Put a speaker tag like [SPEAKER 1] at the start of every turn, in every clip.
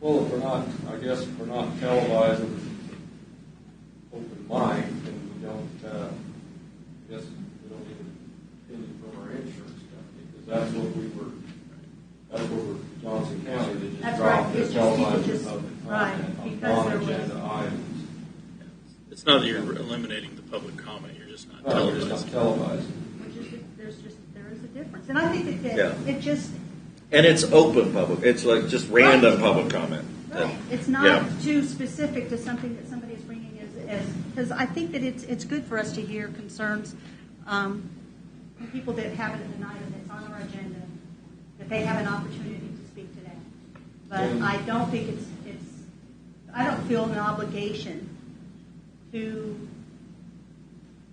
[SPEAKER 1] Well, if we're not, I guess if we're not televising open mic, then we don't, uh, I guess we don't need opinion from our insurance company, because that's what we were, that's what we're, Johnson County, they just
[SPEAKER 2] That's
[SPEAKER 1] dropped
[SPEAKER 2] right,
[SPEAKER 1] their
[SPEAKER 2] it's just- you could
[SPEAKER 1] televising
[SPEAKER 2] just-
[SPEAKER 1] public
[SPEAKER 2] right,
[SPEAKER 1] content on
[SPEAKER 2] because there was-
[SPEAKER 1] non-agenda items.
[SPEAKER 3] It's not that you're eliminating the public comment, you're just not
[SPEAKER 1] No, we're Oh, just
[SPEAKER 3] televising.
[SPEAKER 1] not televising.
[SPEAKER 2] Which is, there's just, there is a difference. And I think that, that
[SPEAKER 4] Yeah.
[SPEAKER 2] it just,
[SPEAKER 4] And it's open public. It's like just
[SPEAKER 2] Right.
[SPEAKER 4] random public comment.
[SPEAKER 2] right, it's
[SPEAKER 4] Yeah.
[SPEAKER 2] not too specific to something that somebody is bringing as, as, because I think that it's, it's good for us to hear concerns, um, from people that have it in an item that's on our agenda, that they have an opportunity to speak to that. But
[SPEAKER 1] Yeah.
[SPEAKER 2] I don't think it's, it's, I don't feel an obligation to,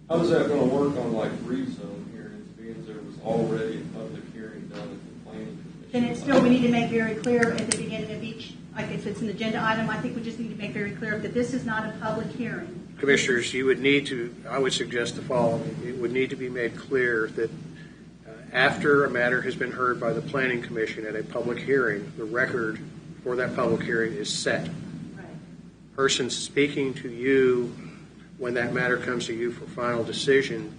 [SPEAKER 1] How is that gonna work on like rezone hearings, being there was already a public hearing done at the planning commission?
[SPEAKER 2] then it's still, we need to make very clear at the beginning of each, like if it's an agenda item, I think we just need to make very clear that this is not a public hearing.
[SPEAKER 5] Commissioners, you would need to, I would suggest the following. It would need to be made clear that uh, after a matter has been heard by the Planning Commission at a public hearing, the record for that public hearing is set.
[SPEAKER 2] Right.
[SPEAKER 5] Person speaking to you when that matter comes to you for final decision,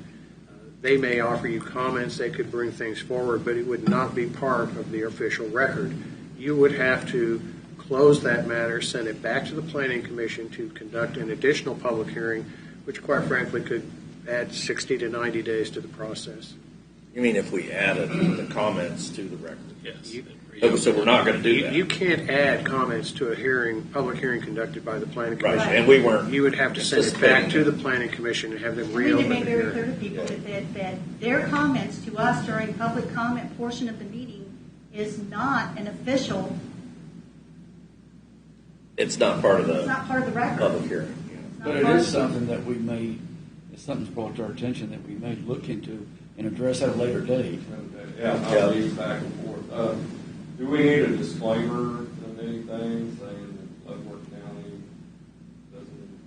[SPEAKER 5] uh, they may offer you comments, they could bring things forward, but it would not be part of the official record. You would have to close that matter, send it back to the Planning Commission to conduct an additional public hearing, which quite frankly could add 60 to 90 days to the process.
[SPEAKER 4] You mean if we added the comments to the record?
[SPEAKER 3] Yes.
[SPEAKER 5] You-
[SPEAKER 4] Oh, so we're not going to do
[SPEAKER 5] You
[SPEAKER 4] that,
[SPEAKER 5] you can't add comments to a hearing, public hearing conducted by the Planning
[SPEAKER 4] right?
[SPEAKER 5] Commission.
[SPEAKER 4] And we weren't.
[SPEAKER 5] You would have to send it back to the Planning Commission and have them
[SPEAKER 2] We need to
[SPEAKER 5] reopen the
[SPEAKER 2] make very clear
[SPEAKER 5] hearing.
[SPEAKER 2] to people that, that, that their comments to us during public comment portion of the meeting is not an official,
[SPEAKER 4] It's not part of
[SPEAKER 2] it's
[SPEAKER 4] the
[SPEAKER 2] not part of the record.
[SPEAKER 4] public hearing.
[SPEAKER 2] It's not
[SPEAKER 6] But it
[SPEAKER 2] part
[SPEAKER 6] is
[SPEAKER 2] of-
[SPEAKER 6] something that we may, if something's brought to our attention, that we may look into and address at a later date.
[SPEAKER 1] Okay, Yeah, I'll leave back and forth. Uh, Do we need a disclaimer of anything saying that Leavenworth County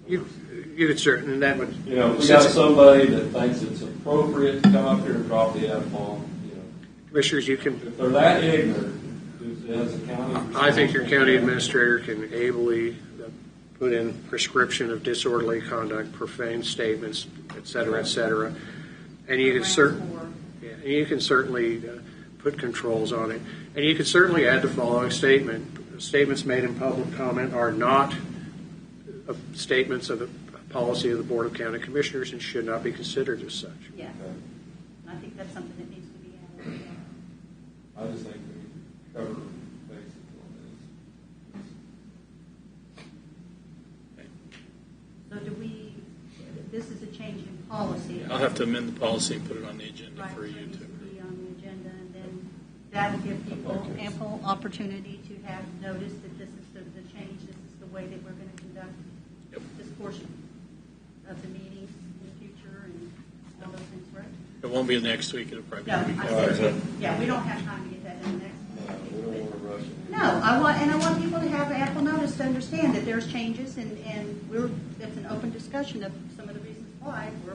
[SPEAKER 5] You,
[SPEAKER 1] doesn't?
[SPEAKER 5] you could certain, and that would.
[SPEAKER 1] You know, if we got somebody that thinks it's appropriate to come up here and drop the F-bomb, you know,
[SPEAKER 5] Commissioners, you can,
[SPEAKER 1] if they're that ignorant, does the county?
[SPEAKER 5] I think your county administrator can ably uh, put in prescription of disorderly conduct, profane statements, et cetera, et cetera. And you can cer,
[SPEAKER 2] Or-
[SPEAKER 5] yeah, and you can certainly uh, put controls on it. And you can certainly add the following statement. Statements made in public comment are not uh, statements of the policy of the Board of County Commissioners and should not be considered as such.
[SPEAKER 2] Yeah, I think that's something that needs to be added.
[SPEAKER 1] I just think we cover basic on
[SPEAKER 2] So do we, this is a change in policy.
[SPEAKER 3] I'll have to amend the policy and put it on the agenda
[SPEAKER 2] Right, so
[SPEAKER 3] for
[SPEAKER 2] it
[SPEAKER 3] you
[SPEAKER 2] needs to
[SPEAKER 3] to.
[SPEAKER 2] be on the agenda, and then that will give people ample opportunity to have notice that this is the, the change, this is the way that we're going to conduct
[SPEAKER 3] Yep.
[SPEAKER 2] this portion of the meeting in the future and all those things, right?
[SPEAKER 3] It won't be next week, it'll probably be.
[SPEAKER 2] No,
[SPEAKER 3] the week
[SPEAKER 2] I
[SPEAKER 3] after.
[SPEAKER 2] said, yeah, we don't have time to get that done
[SPEAKER 1] this.
[SPEAKER 2] next.
[SPEAKER 1] No, Uh, we
[SPEAKER 2] week,
[SPEAKER 1] don't want to rush it.
[SPEAKER 2] but- No, I want, and I want people to have ample notice to understand that there's changes, and, and we're, it's an open discussion of some of the reasons why we're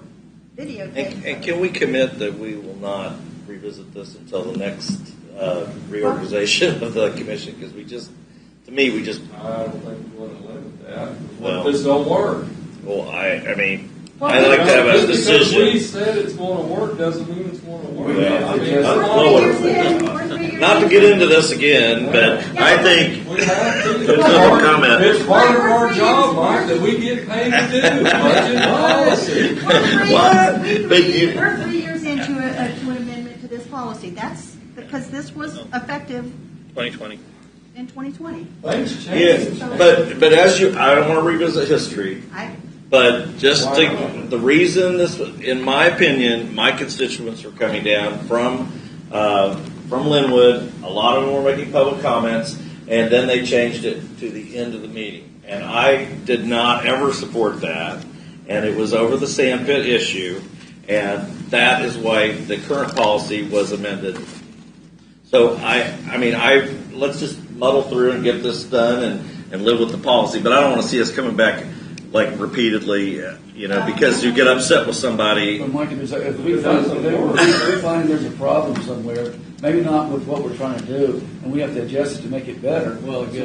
[SPEAKER 4] And, and can
[SPEAKER 2] videotaping.
[SPEAKER 4] we commit that we will not revisit this until the next uh, reorganization of the commission? Because we just, to me, we just,
[SPEAKER 1] I don't think we want to limit that. What
[SPEAKER 4] Well-
[SPEAKER 1] if this don't work?
[SPEAKER 4] well, I, I mean,
[SPEAKER 2] Well,
[SPEAKER 4] I like to have
[SPEAKER 1] Just
[SPEAKER 4] a
[SPEAKER 1] Because we
[SPEAKER 4] decision.
[SPEAKER 1] said it's going to work doesn't mean it's going to work.
[SPEAKER 4] Well,
[SPEAKER 1] I mean,
[SPEAKER 6] it's
[SPEAKER 1] that's
[SPEAKER 2] We're
[SPEAKER 4] just-
[SPEAKER 1] all
[SPEAKER 2] three
[SPEAKER 1] we're
[SPEAKER 2] years in,
[SPEAKER 1] saying.
[SPEAKER 2] we're three years
[SPEAKER 4] Not to
[SPEAKER 2] in.
[SPEAKER 4] get into this again, but I think
[SPEAKER 1] We have to.
[SPEAKER 4] There's no comment.
[SPEAKER 1] It's part of our job, Mike, that we get paid to do, budget policy.
[SPEAKER 2] We're three years-
[SPEAKER 4] What? But you-
[SPEAKER 2] We're three years into a, a- to an amendment to this policy. That's because this was effective
[SPEAKER 3] 2020.
[SPEAKER 2] in 2020.
[SPEAKER 1] Things change.
[SPEAKER 4] Yes, but, but as you, I don't want to revisit history,
[SPEAKER 2] I,
[SPEAKER 4] but just to, the reason this, in my opinion, my constituents were coming down from, uh, from Linwood, a lot of them were making public comments, and then they changed it to the end of the meeting. And I did not ever support that, and it was over the sand pit issue, and that is why the current policy was amended so I, I mean, I, let's just muddle through and get this done and, and live with the policy, but I don't want to see us coming back like repeatedly, uh, you know, because you get upset with somebody.
[SPEAKER 6] But Mike, if there's a- if we find, if there were- if we find there's a problem somewhere, maybe not with what we're trying to do, and we have to adjust it to make it better, well, it